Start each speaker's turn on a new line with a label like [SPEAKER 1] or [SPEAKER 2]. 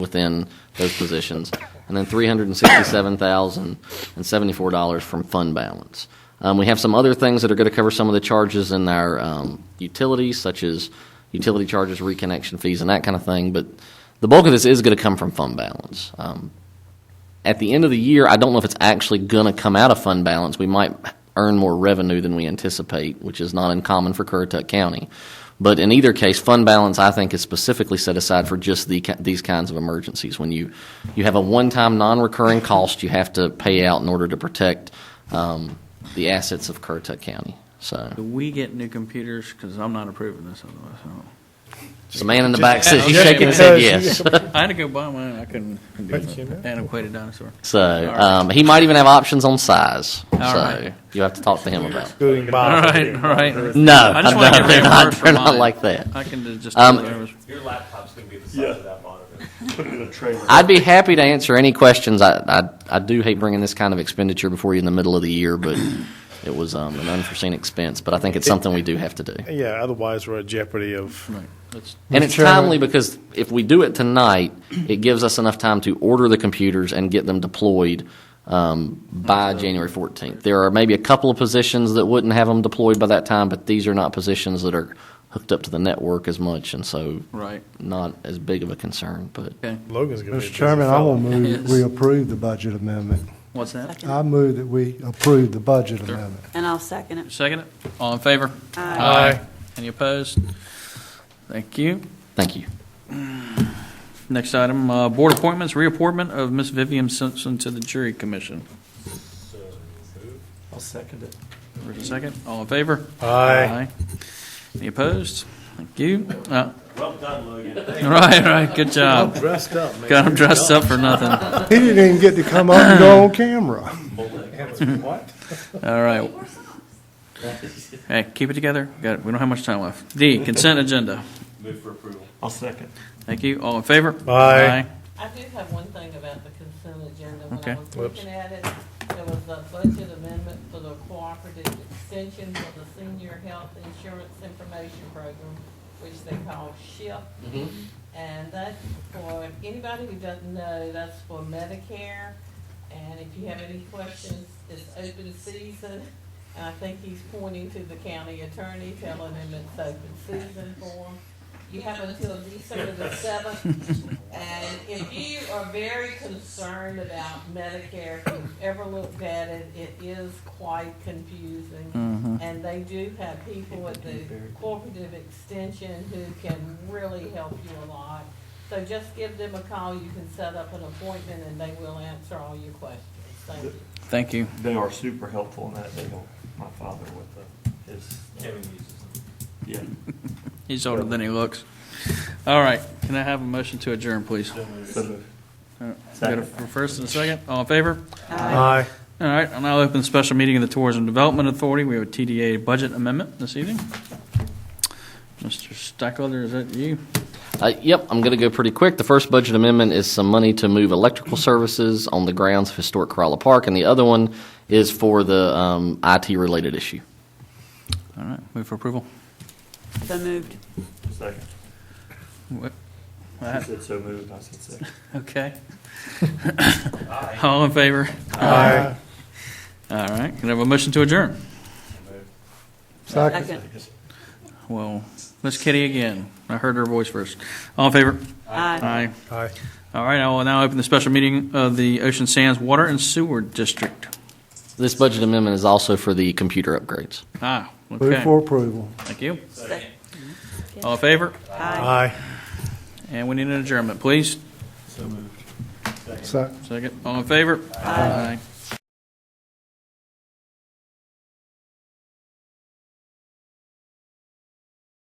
[SPEAKER 1] within those positions, and then three hundred and sixty-seven thousand and seventy-four dollars from fund balance. Um, we have some other things that are going to cover some of the charges in our um, utilities, such as utility charges, reconnection fees, and that kind of thing. But the bulk of this is going to come from fund balance. Um, at the end of the year, I don't know if it's actually going to come out of fund balance. We might earn more revenue than we anticipate, which is not uncommon for Currituck County. But in either case, fund balance, I think, is specifically set aside for just the, ki- these kinds of emergencies. When you, you have a one-time, non-recurring cost you have to pay out in order to protect um, the assets of Currituck County. So,
[SPEAKER 2] Do we get new computers? Because I'm not approving this otherwise. I don't-
[SPEAKER 1] the man in the back says he's
[SPEAKER 2] Just-
[SPEAKER 1] shaking his head yes.
[SPEAKER 2] I had to go buy mine. I couldn't do an antiquated dinosaur.
[SPEAKER 1] So,
[SPEAKER 2] All right.
[SPEAKER 1] um, he might even have options on size. So,
[SPEAKER 2] right.
[SPEAKER 1] you have to talk to him about it.
[SPEAKER 3] Going
[SPEAKER 4] Oh,
[SPEAKER 2] All
[SPEAKER 3] by.
[SPEAKER 2] right, all right.
[SPEAKER 1] No,
[SPEAKER 2] I just wanna
[SPEAKER 1] no,
[SPEAKER 2] get
[SPEAKER 1] they're
[SPEAKER 2] rid of
[SPEAKER 1] not.
[SPEAKER 2] word for
[SPEAKER 1] They're not
[SPEAKER 2] mine.
[SPEAKER 1] like that.
[SPEAKER 2] I can just.
[SPEAKER 1] Um,
[SPEAKER 4] Your laptop's gonna be the size of that monitor.
[SPEAKER 1] I'd be happy to answer any questions. I, I I do hate bringing this kind of expenditure before you in the middle of the year, but it was um, an unforeseen expense. But I think it's something we do have to do,
[SPEAKER 3] Yeah, otherwise we're at jeopardy of,
[SPEAKER 2] Right, let's-
[SPEAKER 1] and it's timely because if we do it tonight, it gives us enough time to order the computers and get them deployed um, by January 14th. There are maybe a couple of positions that wouldn't have them deployed by that time, but these are not positions that are hooked up to the network as much, and so
[SPEAKER 2] Right,
[SPEAKER 1] not as big of a concern. But
[SPEAKER 2] okay.
[SPEAKER 3] Logan's going to be a
[SPEAKER 5] Mr.
[SPEAKER 3] busy
[SPEAKER 5] Chairman, I
[SPEAKER 3] fellow.
[SPEAKER 5] will move
[SPEAKER 2] Yes.
[SPEAKER 5] that we approve the budget amendment.
[SPEAKER 2] What's that?
[SPEAKER 5] I move that we approve the budget amendment.
[SPEAKER 6] And I'll second it.
[SPEAKER 2] Second it? All in favor?
[SPEAKER 3] Aye.
[SPEAKER 2] Any opposed? Thank you.
[SPEAKER 1] thank you.
[SPEAKER 2] Next item, uh, board appointments, reappointment of Ms. Vivian Simpson to the jury commission.
[SPEAKER 4] I'll second it.
[SPEAKER 2] For a second, all in favor?
[SPEAKER 3] Aye.
[SPEAKER 2] Any opposed? Thank you. Uh,
[SPEAKER 4] Well done, Logan.
[SPEAKER 2] Right, right, good job.
[SPEAKER 3] Dressed up, man.
[SPEAKER 2] Got him dressed up for nothing.
[SPEAKER 5] He didn't even get to come up and go on camera.
[SPEAKER 3] What?
[SPEAKER 2] All right. Hey, keep it together. Got it. We don't have much time left. D, consent agenda.
[SPEAKER 4] Move for approval.
[SPEAKER 3] I'll second.
[SPEAKER 2] Thank you. All in favor?
[SPEAKER 3] Aye.
[SPEAKER 7] I do have one thing about the consent agenda. When
[SPEAKER 2] Okay.
[SPEAKER 7] I was looking at it, there was a budget amendment for the cooperative extension for the senior health insurance information program, which they call SHIP. And that's for, anybody who doesn't know, that's for Medicare. And if you have any questions, it's open season. And I think he's pointing to the county attorney, telling him it's open season for him. You have until December the seventh. And if you are very concerned about Medicare, if you've ever looked at it, it is quite confusing. And they do have people at the cooperative extension who can really help you a lot. So just give them a call, you can set up an appointment and they will answer all your questions. Thank you.
[SPEAKER 2] Thank you.
[SPEAKER 8] They are super helpful in that. They help my father with the, his,
[SPEAKER 4] Kevin uses them.
[SPEAKER 8] yeah.
[SPEAKER 2] He's older than he looks. All right. Can I have a motion to adjourn, please?
[SPEAKER 8] So the-
[SPEAKER 2] Got a first and a second. All in favor?
[SPEAKER 3] Aye.
[SPEAKER 2] All right. I'll now open the special meeting of the Tourism Development Authority. We have a TDA budget amendment this evening. Mr. Stackelder, is that you?
[SPEAKER 1] Uh, yep, I'm going to go pretty quick. The first budget amendment is some money to move electrical services on the grounds of historic Corolla Park, and the other one is for the um, IT related issue.
[SPEAKER 2] All right. Move for approval.
[SPEAKER 6] So moved.
[SPEAKER 8] Second.
[SPEAKER 2] What?
[SPEAKER 8] He said so moved. I said second.
[SPEAKER 2] Okay. All in favor?
[SPEAKER 3] Aye.
[SPEAKER 2] All right. Can I have a motion to adjourn?
[SPEAKER 5] Second.
[SPEAKER 6] Second.
[SPEAKER 2] Well, Miss Kitty again. I heard her voice first. All in favor?
[SPEAKER 6] Aye.
[SPEAKER 2] Aye.
[SPEAKER 3] Aye.
[SPEAKER 2] All right, I will now open the special meeting of the Ocean Sands Water and Sewer District.
[SPEAKER 1] This budget amendment is also for the computer upgrades.
[SPEAKER 2] Ah,
[SPEAKER 5] Move
[SPEAKER 2] okay.
[SPEAKER 5] for approval.
[SPEAKER 2] Thank you.
[SPEAKER 6] Second.
[SPEAKER 2] All in favor?
[SPEAKER 3] Aye.
[SPEAKER 6] Aye.
[SPEAKER 2] And we need an adjournment, please.
[SPEAKER 5] Second.
[SPEAKER 2] Second. All in favor? Aye.